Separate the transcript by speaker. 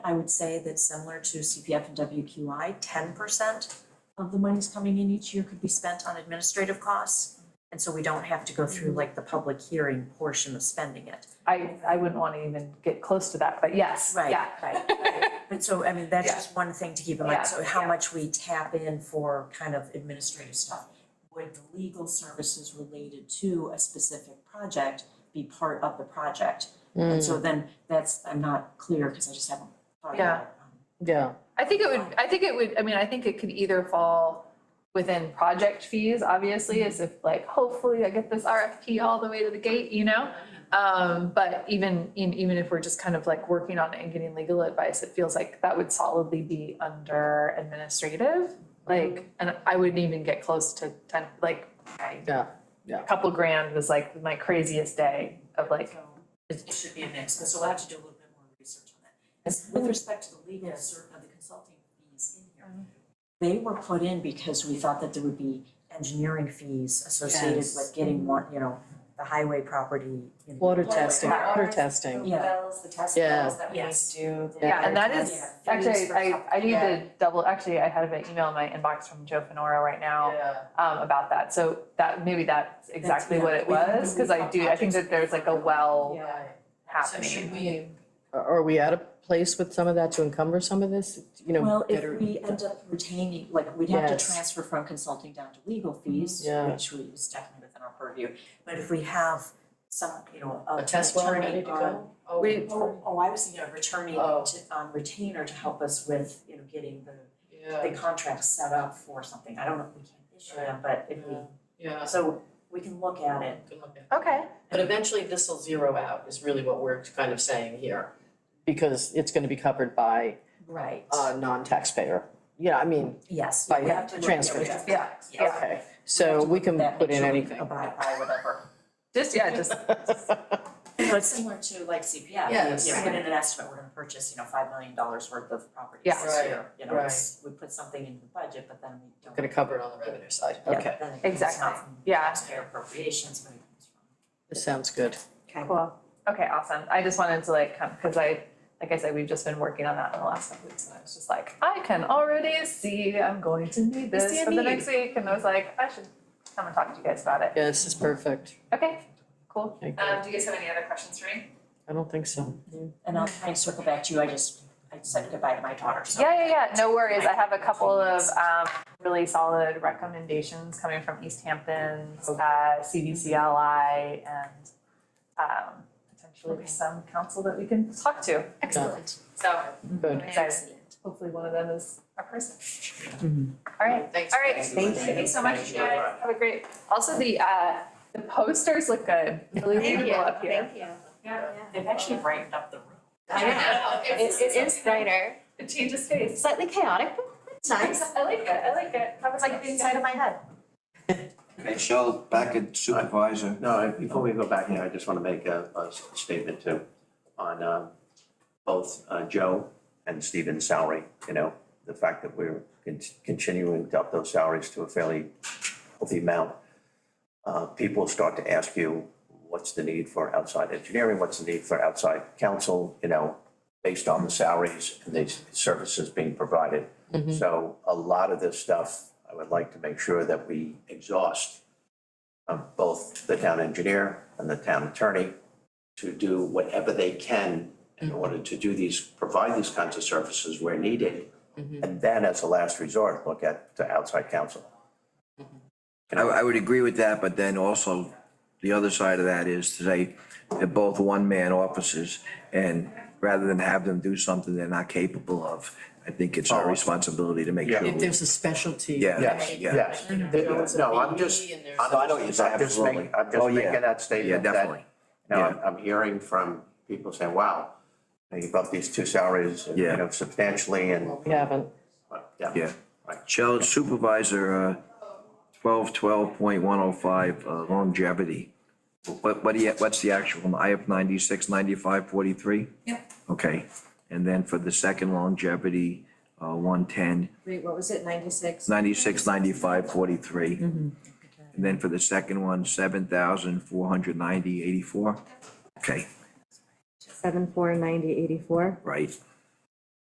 Speaker 1: I would say that similar to CPF and WQI, ten percent of the monies coming in each year could be spent on administrative costs. And so we don't have to go through like the public hearing portion of spending it.
Speaker 2: I, I wouldn't want to even get close to that, but yes,
Speaker 1: Right,
Speaker 2: yeah.
Speaker 1: right, right. But so, I mean, that's just one thing to keep in
Speaker 2: Yeah,
Speaker 1: mind, so
Speaker 2: yeah.
Speaker 1: how much we tap in for kind of administrative stuff. Would the legal services related to a specific project be part of the project? And so then that's, I'm not clear, because I just haven't thought
Speaker 2: Mm. Yeah.
Speaker 1: about it. Um,
Speaker 3: Yeah,
Speaker 2: I think it would, I think it would, I mean, I think it could either fall within project fees, obviously, as if like, hopefully I get this RFP all the way to the gate, you know? Um, but even, in- even if we're just kind of like working on it and getting legal advice, it feels like that would solidly be under administrative. Like, and I wouldn't even get close to ten, like, I-
Speaker 3: yeah.
Speaker 2: a couple grand was like my craziest day of like,
Speaker 1: So It, it should be a mix, but so we'll have to do a little bit more research on that. As with respect to the legal uh, cert of the consulting fees in here. They were put in because we thought that there would be engineering fees associated
Speaker 3: Yes.
Speaker 1: with getting one, you know, the highway property. you know,
Speaker 3: Water testing,
Speaker 1: that-
Speaker 3: water testing.
Speaker 1: Yeah.
Speaker 4: wells, the test
Speaker 3: Yeah.
Speaker 4: wells that we need
Speaker 1: Yes.
Speaker 4: to do. the
Speaker 2: Yeah, and that
Speaker 4: water
Speaker 2: is-
Speaker 4: test.
Speaker 2: actually, I, I need
Speaker 4: Yeah.
Speaker 2: to double, actually, I had an email in my inbox from Joe Fenora right now um, about that, so that, maybe that's exactly
Speaker 1: yeah,
Speaker 2: what it
Speaker 1: we can
Speaker 2: was, cause I
Speaker 1: move
Speaker 2: do, I think that there's like a well
Speaker 4: Yeah.
Speaker 2: happening.
Speaker 4: should
Speaker 3: Are are we at a place with some of that to encumber some of this, you know?
Speaker 1: Well,
Speaker 3: that are-
Speaker 1: if we end up retaining, like, we'd have to
Speaker 3: Yes. Mm-hmm.
Speaker 1: transfer from consulting down to legal fees,
Speaker 3: Yeah.
Speaker 1: which we, is definitely within our purview. But if we have some, you know, a- an attorney on.
Speaker 2: We,
Speaker 1: Oh, oh, I was thinking of returning
Speaker 3: Oh.
Speaker 1: to, um, retainer to help us with, you know, getting the,
Speaker 3: Yeah,
Speaker 1: the contract set up for something. I don't know if we can issue them, but if we,
Speaker 3: yeah.
Speaker 1: so we can look at it.
Speaker 2: okay,
Speaker 5: But eventually this will zero out is really what we're kind of saying here.
Speaker 3: Because it's gonna be covered by
Speaker 1: Right.
Speaker 3: a non-taxpayer. Yeah, I mean,
Speaker 1: Uh, Yes,
Speaker 3: by
Speaker 1: we have to look at
Speaker 3: transfer.
Speaker 1: it.
Speaker 2: yeah,
Speaker 1: Yes.
Speaker 2: yeah,
Speaker 3: okay, so we can put in anything.
Speaker 1: Abide by whatever.
Speaker 2: just, yeah, just,
Speaker 1: So it's similar to like CPF,
Speaker 5: Yes.
Speaker 1: you know, put in an estimate, we're gonna purchase, you know, five million dollars worth of properties
Speaker 2: Yeah.
Speaker 1: this
Speaker 5: Right,
Speaker 1: year. You know, it's, we put something in the budget, but then we don't.
Speaker 3: Gonna cover it
Speaker 5: on the revenue side.
Speaker 1: Yeah,
Speaker 3: Okay,
Speaker 1: then it comes not
Speaker 2: Exactly.
Speaker 1: from
Speaker 2: Yeah.
Speaker 1: taxpayer appropriations, but it comes from.
Speaker 3: this sounds good.
Speaker 2: cool, okay, awesome, I just wanted to like come, cause I, like I said, we've just been working on that in the last couple weeks, and I was just like, I can already see I'm going to need this
Speaker 3: see a
Speaker 2: for the
Speaker 3: need.
Speaker 2: next week, and I was like, I should come and talk to you guys about it,
Speaker 3: Yeah, this is perfect.
Speaker 2: okay, cool.
Speaker 3: Thank you.
Speaker 2: Um, do you guys have any other questions for me?
Speaker 3: I don't think so.
Speaker 1: And I'll try and circle back to you, I just, I said goodbye to my daughter, so.
Speaker 2: Yeah, yeah, yeah, no worries, I have a couple of um really solid recommendations coming from East Hampton, uh CVCLI and um potentially some council that we can talk to,
Speaker 3: Excellent.
Speaker 2: so
Speaker 3: Good.
Speaker 2: excited. Hopefully one of them is our person. All right,
Speaker 5: Thanks.
Speaker 2: all right,
Speaker 5: Thank
Speaker 2: thank you so much, you guys, have a great, also the uh the posters look good, really
Speaker 4: Thank you,
Speaker 2: beautiful up here.
Speaker 4: thank you.
Speaker 1: They've actually brightened up the room.
Speaker 2: I know, it's
Speaker 4: It, it is brighter,
Speaker 2: it changes face.
Speaker 4: slightly chaotic, but it's nice.
Speaker 2: I like it, I like it, that was like the inside of my head.
Speaker 6: Michelle, back at supervisor.
Speaker 7: No, I- before we go back here, I just want to make a, a s- statement too on um, both uh, Joe and Stephen's salary, you know, the fact that we're con- continuing to up those salaries to a fairly healthy amount. Uh, People start to ask you, what's the need for outside engineering? What's the need for outside counsel, you know, based on the salaries and the s- services being provided? So a lot of this stuff, I would like to make sure that we exhaust of both the town engineer and the town attorney to do whatever they can in order to do these, provide these kinds of services where needed. And then as a last resort, look at the outside counsel.
Speaker 6: I, I would agree with that, but then also the other side of that is to say they're both one-man officers and rather than have them do something they're not capable of, I think it's our responsibility to make
Speaker 7: Yeah.
Speaker 6: sure.
Speaker 3: If
Speaker 6: we-
Speaker 3: there's a specialty.
Speaker 6: Yes, yeah.
Speaker 7: Yes,
Speaker 3: Mm-hmm.
Speaker 7: no, I'm just,
Speaker 6: No, I know what you're saying,
Speaker 7: I'm just
Speaker 6: absolutely.
Speaker 7: making, I'm
Speaker 6: Oh,
Speaker 7: just
Speaker 6: yeah.
Speaker 7: making that
Speaker 6: Yeah,
Speaker 7: statement that,
Speaker 6: definitely.
Speaker 7: you know, I'm, I'm hearing from people saying, wow, you've upped these two salaries, you
Speaker 6: Yeah.
Speaker 7: know, substantially and,
Speaker 3: We haven't.
Speaker 7: yeah.
Speaker 6: Yeah. Shall supervisor, uh, twelve, twelve point one oh five, uh, longevity. What, what do you, what's the actual, one? I have ninety-six, ninety-five, forty-three?
Speaker 1: Yep.
Speaker 6: Okay, and then for the second longevity, uh, one-ten,
Speaker 4: Wait, what was it, ninety-six? Mm-hmm.
Speaker 6: ninety-six, ninety-five, forty-three. And then for the second one, seven thousand, four hundred ninety, eighty-four? Okay,
Speaker 4: Seven, four, ninety, eighty-four.
Speaker 6: right,